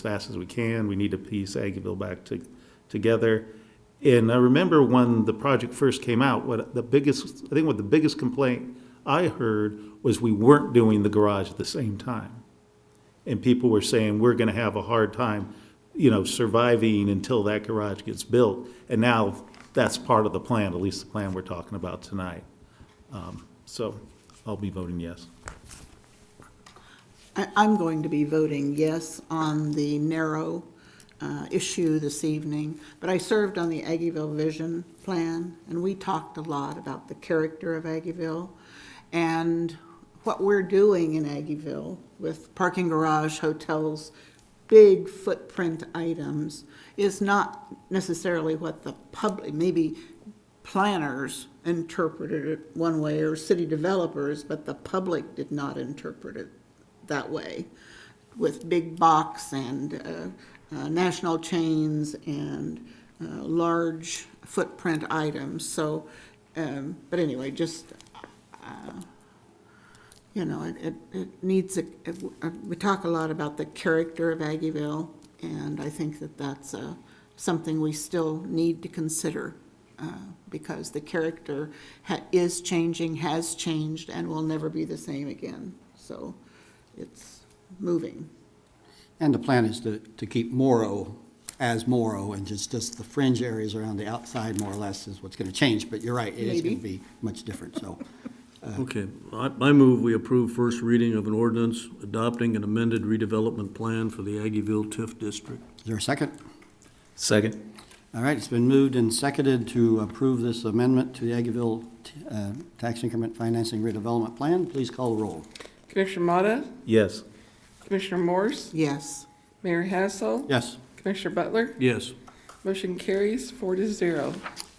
fast as we can. We need to piece Aggieville back to, together. And I remember when the project first came out, what the biggest, I think what the biggest complaint I heard was we weren't doing the garage at the same time. And people were saying, we're gonna have a hard time, you know, surviving until that garage gets built. And now that's part of the plan, at least the plan we're talking about tonight. Um, So I'll be voting yes. I, I'm going to be voting yes on the narrow uh, issue this evening, but I served on the Aggieville Vision Plan, and we talked a lot about the character of Aggieville and what we're doing in Aggieville with parking garage, hotels, big footprint items, is not necessarily what the public, maybe planners interpreted it one way or city developers, but the public did not interpret it that way with big box and uh, uh, national chains and uh, large footprint items. So, um, but anyway, just, uh, you know, it, it, it needs, a, it- uh, we talk a lot about the character of Aggieville, and I think that that's uh, something we still need to consider uh, because the character ha- is changing, has changed, and will never be the same again. So it's moving. And the plan is to, to keep Morrow as Morrow, and just, just the fringe areas around the outside more or less is what's gonna change, but you're right, it is gonna Maybe. be much different, so. Okay, I, I move we approve first reading of an ordinance adopting an amended redevelopment plan for the Aggieville TIF district. Is there a second? Second. All right, it's been moved and seconded to approve this amendment to the Aggieville uh, Tax Increment Financing Redevelopment Plan. Please call the roll. Commissioner Motta, Yes. Commissioner Morse, Yes. Mayor Hassel, Yes, Commissioner Butler, Yes. motion carries four to zero.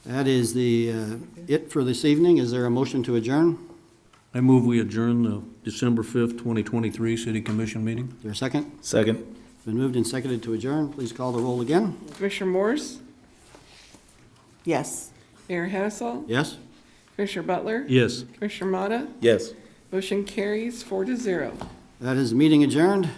that is the, uh, it for this evening. Is there a motion to adjourn? I move we adjourn the December fifth, twenty twenty-three city commission meeting. Is there a second? Second. Been moved and seconded to adjourn. Please call the roll again. Commissioner Morse, Yes. Mayor Hassel, Yes? Commissioner Butler, Yes. Commissioner Motta, Yes. motion carries four to zero. That is the meeting adjourned.